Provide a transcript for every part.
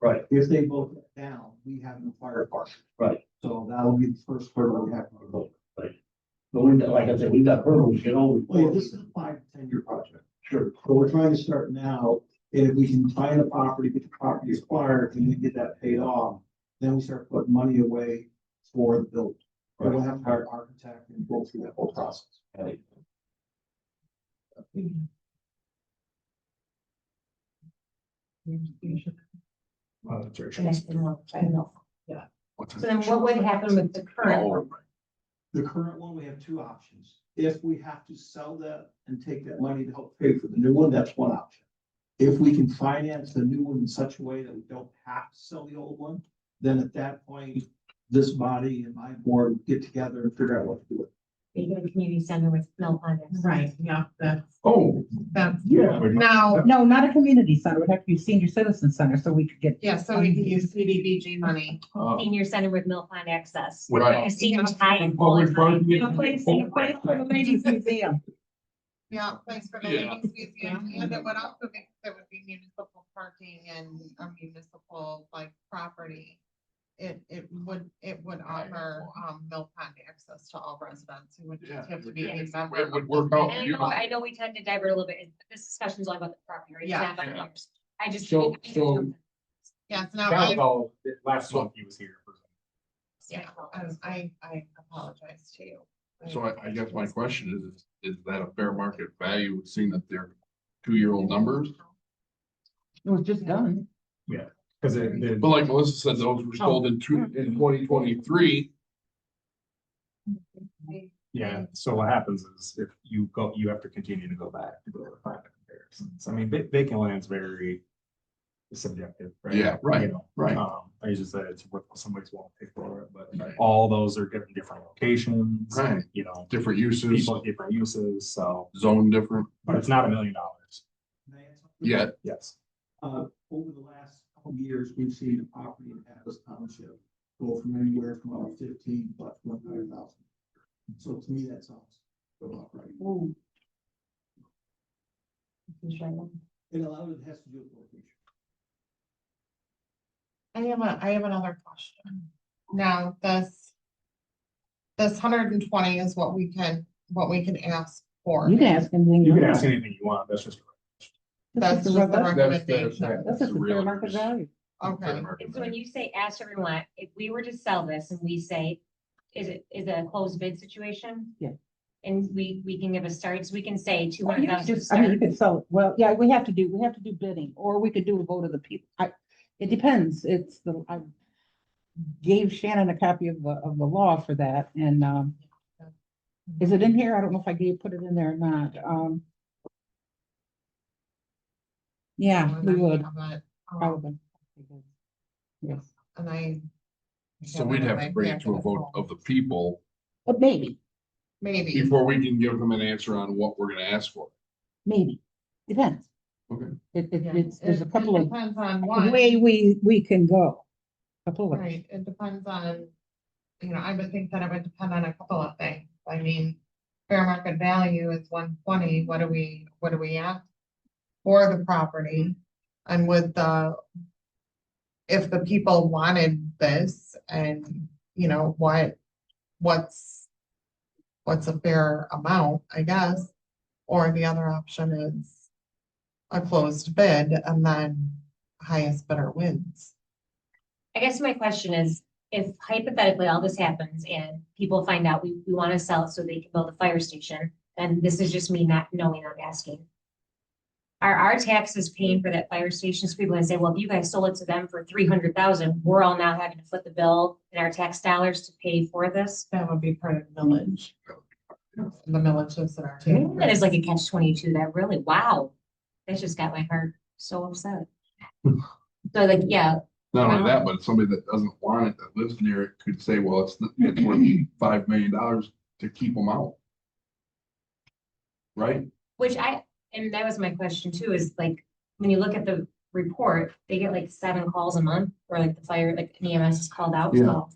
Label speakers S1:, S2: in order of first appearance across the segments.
S1: Right.
S2: If they vote that down, we have no fire department.
S1: Right.
S2: So that'll be the first hurdle we have to vote.
S1: But we, like I said, we got hurdles, you know.
S2: Well, yeah, this is a five to ten year project,
S1: Sure.
S2: but we're trying to start now, and if we can find a property, get the property acquired, and then get that paid off, then we start putting money away for the build. But we'll have to hire an architect and go through that whole process.
S1: Right.
S3: Connect them up, I don't know. So then what would happen with the current one?
S2: The current one, we have two options. If we have to sell that and take that money to help pay for the new one, that's one option. If we can finance the new one in such a way that we don't have to sell the old one, then at that point, this body and my board get together and figure out what to do.
S3: You go to community center with no on it.
S4: Right, yeah, that's,
S5: Oh,
S4: that's,
S5: yeah.
S4: now,
S6: No, not a community center. It would have to be senior citizen center so we could get.
S4: yeah, so we can use CDBG money.
S5: Uh,
S3: Senior center with Mill Pond Access.
S5: Right.
S3: A senior tie and.
S5: Well, we're
S3: full-time.
S5: trying to-
S6: A place, a place for the ladies museum.
S4: Yeah, place for the
S5: Yeah.
S4: ladies museum, and then what else would be, there would be municipal parking and a municipal like property. It, it would, it would offer, um, Mill Pond access to all residents who would
S5: Yeah,
S4: just have to be a
S5: it
S4: member.
S5: would
S4: of
S5: work
S4: the-
S5: out
S3: And I know, I know we tend to divert a little bit, this discussion's all about the property, right? It's
S4: Yeah.
S3: not about
S5: Yeah.
S3: ours. I just.
S5: So- so-
S4: Yes, now,
S7: That was
S4: I,
S7: all, that last month he was here.
S4: yeah, I- I, I apologize to you.
S5: So I, I guess my question is, is that a fair market value, seeing that they're two-year-old numbers?
S6: It was just done.
S7: Cause it, it-
S5: But like Melissa said, those were sold in two, in twenty twenty-three.
S7: yeah, so what happens is if you go, you have to continue to go back to go to find the comparisons. I mean, va- vacant land's very subjective, right?
S5: Yeah, right,
S7: You know,
S5: right.
S7: Um, I usually say it's worth, somebody's willing to pay for it, but
S5: Right.
S7: all those are different, different locations.
S5: Right.
S7: You know,
S5: Different uses,
S7: people, different uses, so,
S5: zone different,
S7: but it's not a million dollars,
S2: Can I add something?
S5: yeah,
S7: yes.
S2: Uh, over the last couple of years, we've seen the property in Atlas Township go from anywhere from about fifteen, but one hundred thousand. So to me, that sounds about right. And a lot of it has to do with location.
S4: I have a, I have another question. Now, this. This hundred and twenty is what we can, what we can ask for.
S6: You can ask anything.
S7: You can
S6: want.
S7: ask anything you want, that's just.
S6: That's
S4: That's
S6: just
S4: what the
S6: a-
S5: that's, that's.
S4: recommendation.
S6: that's just a fair market value.
S4: Okay,
S3: So when you say ask everyone, if we were to sell this and we say, is it, is it a closed bid situation?
S6: Yeah.
S3: And we, we can give a start, so we can say two
S6: Well, you
S3: hundred thousand
S6: could just- I mean, you
S3: start.
S6: could sell, well, yeah, we have to do, we have to do bidding, or we could do a vote of the people. I, it depends. It's the, I gave Shannon a copy of the, of the law for that and, um, is it in here? I don't know if I gave, put it in there or not. Um, yeah, we would, probably. Yes,
S4: Um, And I.
S5: So we'd have to bring it to a vote of the people
S6: but maybe,
S4: Maybe,
S5: before we can give them an answer on what we're gonna ask for.
S6: maybe, depends.
S5: Okay.
S6: It, it,
S4: yeah.
S6: it's, there's
S4: It-
S6: a
S4: it
S6: couple of,
S4: Depends on
S6: the
S4: what,
S6: way we, we can go. Couple of.
S4: right, it depends on, you know, I would think that it would depend on a couple of things, I mean. Fair market value is one twenty, what do we, what do we ask for the property? And with the. If the people wanted this and, you know, what, what's. What's a fair amount, I guess, or the other option is. A closed bid and then highest bidder wins.
S3: I guess my question is, if hypothetically all this happens and people find out we, we want to sell it so they can build a fire station, and this is just me not knowing, I'm asking. Are our taxes paying for that fire station? So people can say, well, if you guys sold it to them for three hundred thousand, we're all now having to foot the bill in our tax dollars to pay for this.
S4: That would be part of the millage. The millage is in our. tax
S3: That is like a
S4: rate.
S3: catch twenty-two, that really, wow, that just got my heart so upset. So like, yeah,
S5: Not only that, but somebody that doesn't want it, that lives near it could say, well, it's, it's worth five million dollars to keep them out. Right?
S3: Which I, and that was my question too, is like, when you look at the report, they get like seven calls a month, or like the fire, like an EMS is called out, so.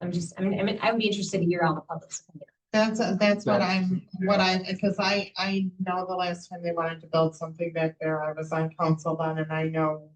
S3: I'm just, I mean, I mean, I would be interested to hear all the public's opinion.
S4: That's, that's what
S5: That's-
S4: I'm, what I, because I, I know the last time they wanted to build something back there, I was on council then, and I know